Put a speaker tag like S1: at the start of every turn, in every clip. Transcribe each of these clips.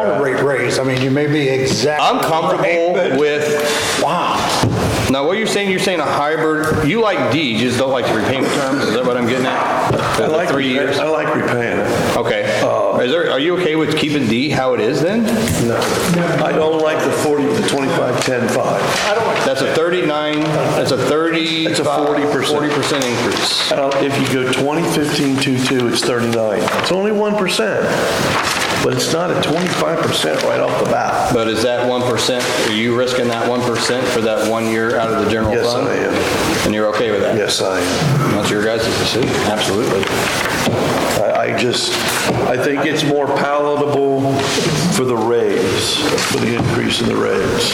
S1: phrase. I mean, you may be exact.
S2: I'm comfortable with,
S1: Wow.
S2: now what you're saying, you're saying a hybrid, you like D, you just don't like the repayment terms, is that what I'm getting at?
S3: I like, Oh.
S2: Three
S3: repay-
S2: years?
S3: I like repaying it.
S2: Okay. Is there, are you okay with keeping D how it is then?
S3: No. I don't like the 40, the 25, 10, 5.
S2: That's a 39, that's a 30.
S3: It's a 40%.
S2: 40% increase.
S3: I don't- If you go 20, 15, 2, 2, it's 39. It's only 1%, but it's not a 25% right off the bat.
S2: But is that 1%, are you risking that 1% for that one year out of the general
S3: Yes,
S2: fund?
S3: I am.
S2: And you're okay with that?
S3: Yes, I am.
S2: That's your guys' decision, absolutely.
S3: I I just, I think it's more palatable for the raise, for the increase in the raise.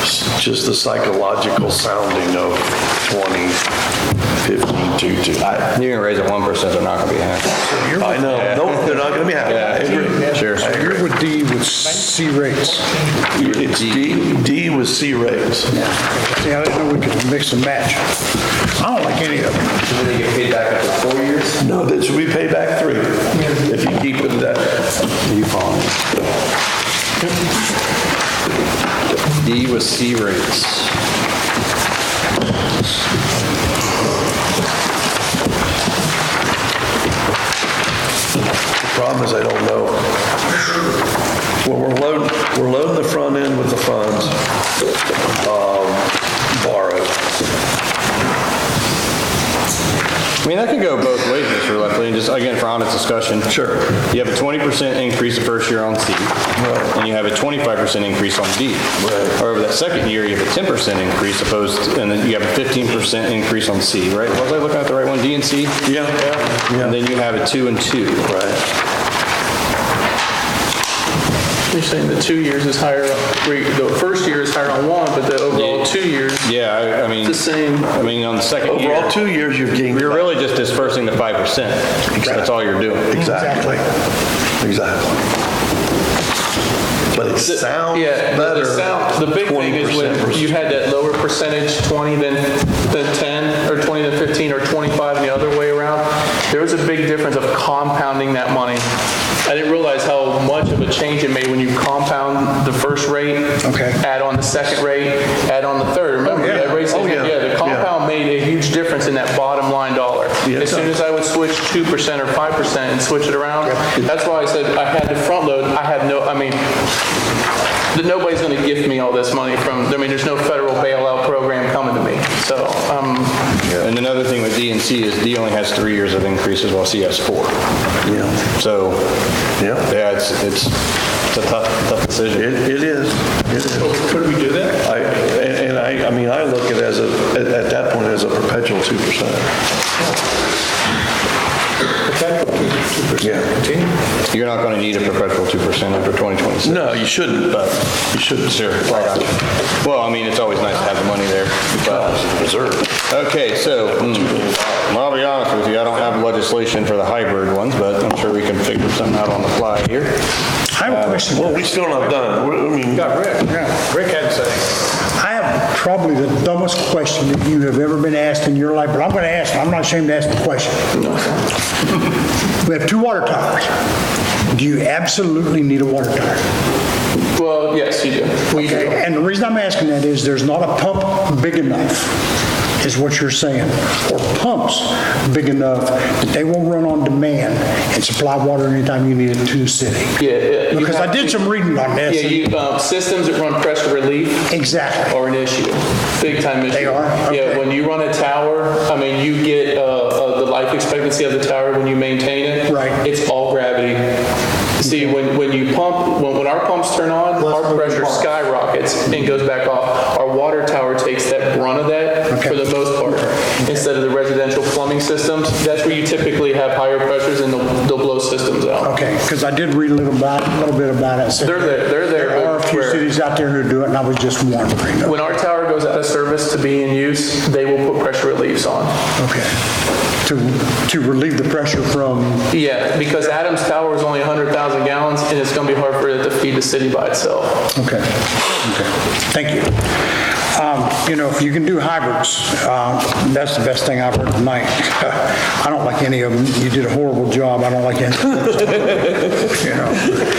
S3: It's Just the psychological sounding of 20, 15, 2, 2. I
S2: You're gonna raise it 1%, they're not gonna be happy.
S3: I know, nope, they're not going to be happy. I agree.
S2: Sure.
S3: I agree.
S1: Here with D with C rates.
S3: It's D, D with C raise.
S1: See, I didn't know we could mix and match. I don't like any of them.
S2: they get paid back after four years?
S3: No, that's, we pay back three, if you keep it that. You follow
S2: D with C rates.
S3: The problem is I don't know. Well, we're loading, we're loading the front end with the funds, um, borrowed.
S2: I mean, that could go both ways, Mr. Leftley, and just, again, for honest discussion.
S3: Sure.
S2: You have a 20% increase the first year on C, and you have a 25% increase on D. However, that second year, you have a 10% increase opposed, and then you have a 15% increase on C, right? Was I looking at the right one, D and C?
S3: Yeah.
S2: And
S3: Yeah.
S2: then you have a two and two.
S3: Right.
S4: You're saying the two years is higher, on- we- the first year is higher on one, but the
S2: Yeah.
S4: overall two years, it's
S2: Yeah, I- I mean,
S4: the same.
S2: I mean, on the second year.
S3: Overall, two years you've gained.
S2: You're really just dispersing the 5%. That's all you're doing.
S3: Exactly. Exactly. But it sounds
S4: Yeah, the-
S3: better.
S4: the sound, the big thing is
S3: 20%
S4: when
S3: versus-
S4: you had that lower percentage, 20 than, than 10, or 20 than 15, or 25 and the other way around, there was a big difference of compounding that money. I didn't realize how much of a change it made when you compound the first rate.
S1: Okay.
S4: Add on the second rate, add on the third, remember,
S3: yeah.
S4: that rate,
S3: Oh, yeah.
S4: yeah, the
S3: Yeah.
S4: compound made a huge difference in that bottom line dollar.
S3: Yeah, it
S4: As soon
S3: does.
S4: as I would switch 2% or 5% and switch it around, that's why I said I had to front load, I had no, I mean, that nobody's going to gift me all this money from, I mean, there's no federal bailout program coming to me. So, um,
S2: And another thing with D and C is D only has three years of increases while C has four.
S3: Yeah.
S2: So,
S3: Yeah.
S2: yeah, it's, it's it's a tough, tough decision.
S3: It, it is, it is. Could we do that? I, and and I, I mean, I look at it as a, at at that point, as a perpetual 2%. Yeah.
S2: You're not going to need a perpetual 2% after 2026.
S3: No, you shouldn't, but you shouldn't.
S2: Sure, I got you. Well, I mean, it's always nice to have the money there. but-
S3: Reserve.
S2: Okay, so, mm, well, I'll be honest with you, I don't have legislation for the hybrid ones, but I'm sure we can figure something out on the fly here.
S5: I
S1: Uh,
S5: have a question.
S3: Well, we still not done. We're- I mean,
S1: Yeah.
S2: Rick had something.
S5: I have probably the dumbest question that you have ever been asked in your life, but I'm going to ask it. I'm not ashamed to ask the question. We have two water towers. Do you absolutely need a water tower?
S4: well, yes, you do. We do.
S5: And the reason I'm asking that is there's not a pump big enough, is what you're saying, or pumps big enough that they will run on demand and supply water anytime you need it to the city.
S4: Yeah, Yeah. you
S5: Because I
S4: have
S5: did
S4: to-
S5: some reading on
S4: Yeah,
S5: this.
S4: you, um, systems that run pressure relief
S5: Exactly.
S4: are an issue, big time issue.
S5: They are?
S4: Yeah,
S5: Okay.
S4: when you run a tower, I mean, you get uh, uh, the life expectancy of the tower when you maintain it.
S5: Right.
S4: It's all gravity. See, when, when you pump, when, when our pumps turn on, our pressure skyrockets and goes back off. Our water tower takes that brunt of that for
S5: Okay.
S4: the most part. Instead of the residential plumbing systems, that's where you typically have higher pressures and they'll, they'll blow systems out.
S5: Okay, because I did read a little about, a little bit about it.
S4: They're there- they're there,
S5: There are a few
S4: where-
S5: cities out there who do it, and I was just wondering.
S4: When our tower goes out of service to be in use, they will put pressure reliefs on.
S5: Okay. To, to relieve the pressure from,
S4: Yeah, because Adams Tower is only 100,000 gallons, and it's going to be hard for it to feed the city by itself.
S5: okay, okay, thank you. Um, You know, if you can do hybrids, uh, that's the best thing I've heard tonight. I don't like any of them. You did a horrible job. I don't like any. You know?